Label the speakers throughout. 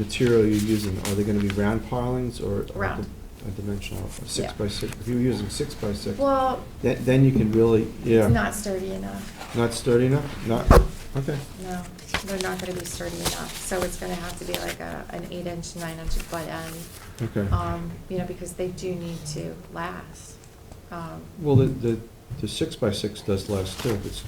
Speaker 1: material you're using, are they gonna be round pilings or? or
Speaker 2: Round.
Speaker 1: di- A dimensional, a six
Speaker 2: Yeah.
Speaker 1: by six, if you're using six by six,
Speaker 2: Well,
Speaker 1: then, then you can really,
Speaker 2: it's
Speaker 1: yeah,
Speaker 2: not sturdy enough,
Speaker 1: not sturdy enough, not, okay,
Speaker 2: no, they're not gonna be sturdy enough, so it's gonna have to be like a, an eight inch, nine inch butt end,
Speaker 1: okay.
Speaker 2: um, you know, because they do need to last. Um,
Speaker 1: Well, the, the, the six by six does last too, it's,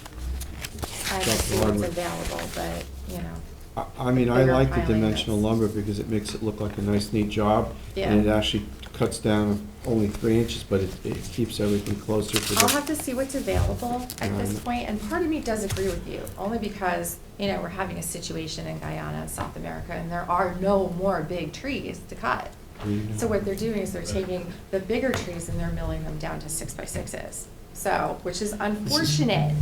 Speaker 2: I have to
Speaker 1: Dr.
Speaker 2: see what's
Speaker 1: Hardwick.
Speaker 2: available, but, you know,
Speaker 1: I, I mean, I
Speaker 2: Bigger
Speaker 1: like the
Speaker 2: piling
Speaker 1: dimensional
Speaker 2: that's-
Speaker 1: lumber because it makes it look like a nice neat job. And it
Speaker 2: yeah.
Speaker 1: actually cuts down only three inches, but it, it keeps everything closer to the.
Speaker 2: I'll have to see what's available at this
Speaker 1: Um,
Speaker 2: point, and part of me does agree with you, only because, you know, we're having a situation in Guyana, South America, and there are no more big trees to cut.
Speaker 1: Green.
Speaker 2: So what they're doing is they're taking the bigger trees and they're milling them down to six by sixes. So, which is unfortunate,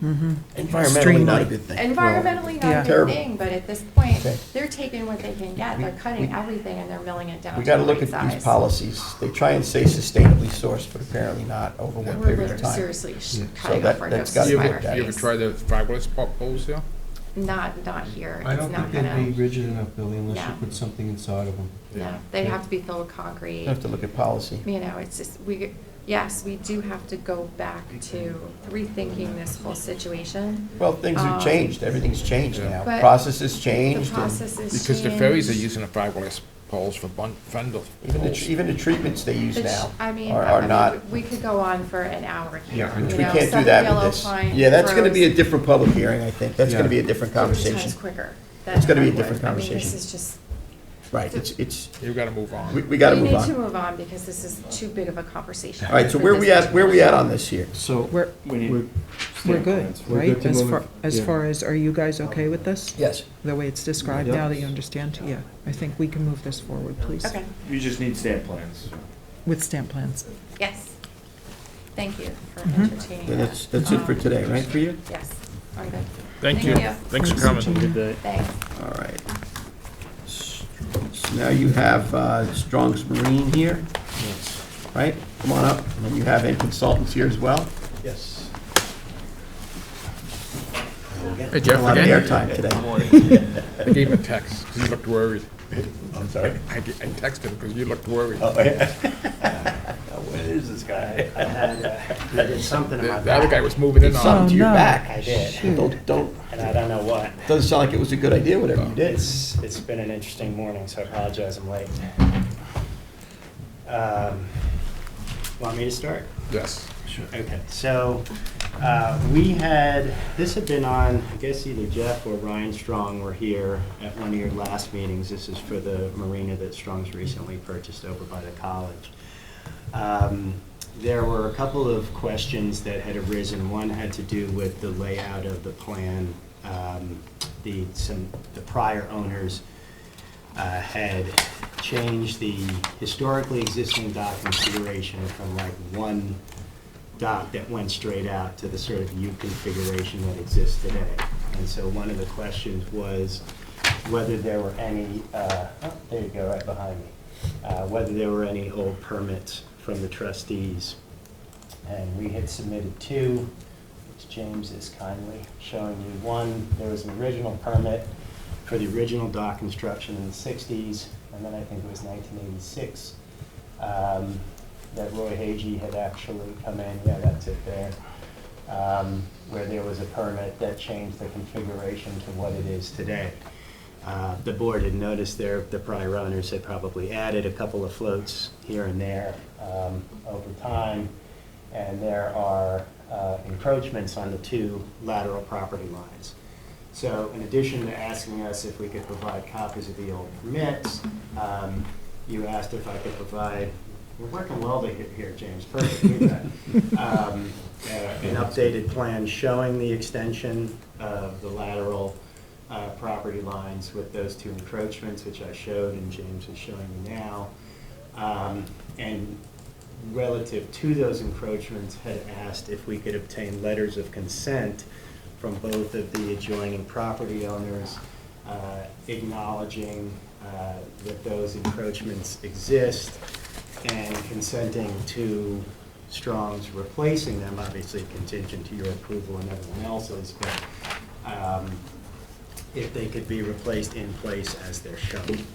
Speaker 3: Mm-hmm.
Speaker 4: Environmentally not a
Speaker 3: Streamlined.
Speaker 4: good thing.
Speaker 2: environmentally not a good
Speaker 4: Terrible.
Speaker 2: thing, but at this point,
Speaker 4: Okay.
Speaker 2: they're taking what they can get, they're cutting
Speaker 4: We-
Speaker 2: everything and they're milling it down
Speaker 4: We
Speaker 2: to the
Speaker 4: gotta
Speaker 2: right size.
Speaker 4: look at these policies. They try and say sustainably sourced, but apparently not over
Speaker 2: We're
Speaker 4: what period of
Speaker 2: literally
Speaker 4: time.
Speaker 2: seriously sh-
Speaker 1: Yeah.
Speaker 2: cutting
Speaker 4: So
Speaker 2: off
Speaker 4: that-
Speaker 2: our noses
Speaker 4: that's gotta
Speaker 2: by
Speaker 4: be
Speaker 5: You
Speaker 2: our
Speaker 4: looked
Speaker 5: ever,
Speaker 4: at.
Speaker 5: you ever
Speaker 2: face.
Speaker 5: tried the fiberglass pop holes here?
Speaker 2: Not, not here,
Speaker 1: I
Speaker 2: it's
Speaker 1: don't
Speaker 2: not
Speaker 1: think they'd be
Speaker 2: gonna,
Speaker 1: rigid enough, Billy, unless you
Speaker 2: No.
Speaker 1: put something inside of them.
Speaker 2: no, they'd have to be filled with concrete.
Speaker 4: You have to look at policy.
Speaker 2: you know, it's just, we, yes, we do have to go back to rethinking this whole situation.
Speaker 4: Well, things
Speaker 2: Um,
Speaker 4: have changed. Everything's changed
Speaker 5: Yeah.
Speaker 4: now.
Speaker 2: But
Speaker 4: Processes
Speaker 2: The
Speaker 4: changed. and
Speaker 2: process is changed.
Speaker 5: Because the ferries are using the fiberglass poles for bun, fendel
Speaker 4: Even the,
Speaker 5: poles.
Speaker 4: tr- even the treatments they use
Speaker 2: The ch-
Speaker 4: now
Speaker 2: I mean,
Speaker 4: are
Speaker 2: I- I
Speaker 4: are
Speaker 2: mean,
Speaker 4: not,
Speaker 2: we we could go on for an hour here.
Speaker 1: Yeah,
Speaker 2: you
Speaker 1: and
Speaker 4: we
Speaker 2: know,
Speaker 4: can't do
Speaker 2: Southern
Speaker 4: that
Speaker 2: yellow
Speaker 4: with this.
Speaker 2: pine
Speaker 4: Yeah, that's gonna be a
Speaker 2: grows
Speaker 4: different public hearing, I think. That's
Speaker 1: Yeah.
Speaker 4: gonna be a different
Speaker 2: 50 times
Speaker 4: conversation.
Speaker 2: quicker than
Speaker 4: It's gonna be a
Speaker 2: hardwood.
Speaker 4: different
Speaker 2: I mean,
Speaker 4: conversation.
Speaker 2: this is just.
Speaker 4: Right, it's, it's,
Speaker 5: You gotta move on.
Speaker 4: we, we gotta
Speaker 2: we
Speaker 4: move
Speaker 2: need to
Speaker 4: on.
Speaker 2: move on because this is too big of a conversation.
Speaker 4: All right, so
Speaker 2: for
Speaker 4: where
Speaker 2: this
Speaker 4: we at, where we at on this here?
Speaker 1: So.
Speaker 3: We're,
Speaker 1: we need-
Speaker 3: we're good,
Speaker 1: We're
Speaker 3: right?
Speaker 1: to
Speaker 3: As
Speaker 1: move-
Speaker 3: far, as
Speaker 1: yeah.
Speaker 3: far as, are you guys okay with this?
Speaker 4: Yes.
Speaker 3: The way it's described now that you understand? Yeah, I think we can move this forward, please.
Speaker 2: Okay,
Speaker 6: You just need stamp plans.
Speaker 3: With stamp plans.
Speaker 2: yes. Thank you for
Speaker 7: Mm-hmm.
Speaker 3: Mhm.
Speaker 2: entertaining
Speaker 4: Yeah,
Speaker 2: that.
Speaker 4: That's, that's it for
Speaker 2: Um,
Speaker 4: today, right, for you?
Speaker 2: Yes, I'm good.
Speaker 7: Thank you. Thanks for coming.
Speaker 3: Gina.
Speaker 2: Thanks.
Speaker 4: All right. S- So now you have uh, Strong's Marine here, right? Come on up. And you have Ed Consultants here as well.
Speaker 6: Yes.
Speaker 5: Hey
Speaker 4: A
Speaker 5: Jeff,
Speaker 4: lot of
Speaker 5: again,
Speaker 4: airtime today.
Speaker 5: I gave him a text, 'cause he looked worried.
Speaker 6: I'm sorry.
Speaker 5: I, ge- I texted him because you looked worried.
Speaker 6: Oh, yeah. Where is this guy?
Speaker 8: had, uh, I did something in
Speaker 5: The
Speaker 8: my
Speaker 5: the other guy
Speaker 8: back,
Speaker 5: was moving in on.
Speaker 4: Something to your
Speaker 3: no.
Speaker 4: back.
Speaker 8: I did.
Speaker 4: Don't, don't,
Speaker 8: and I don't know what.
Speaker 4: doesn't sound like it was a good idea, whatever you did.
Speaker 8: It's, it's been an interesting morning, so I apologize, I'm late. Um, Want me to start?
Speaker 5: Yes.
Speaker 8: Okay, so uh, we had, this had been on, I guess either Jeff or Ryan Strong were here at one of your last meetings. This is for the marina that Strong's recently purchased over by the college. Um, There were a couple of questions that had arisen. One had to do with the layout of the plan. Um, The, some, the prior owners uh, had changed the historically existing dock configuration from like one dock that went straight out to the sort of U configuration that exists today. And so one of the questions was whether there were any, uh, oh, there you go, right behind me, uh, whether there were any old permits from the trustees. And we had submitted two, which James is kindly showing you. One, there was an original permit for the original dock construction in the 60s, and then I think it was 1986, um, that Roy Hagee had actually come in, yeah, that's it there, um, where there was a permit that changed the configuration to what it is today. Uh, The board had noticed there, the prior owners had probably added a couple of floats here and there um, over time, and there are uh, encroachments on the two lateral property lines. So in addition to asking us if we could provide copies of the old permits, um, you asked if I could provide, we're working well to get here, James, perfect, you bet. Um, uh, An updated plan showing the extension of the lateral uh, property lines with those two encroachments, which I showed and James is showing you now. Um, And relative to those encroachments, had asked if we could obtain letters of consent from both of the adjoining property owners uh, acknowledging uh, that those encroachments exist and consenting to Strong's replacing them, obviously contingent to your approval and everyone else's, but um, if they could be replaced in place as they're shown.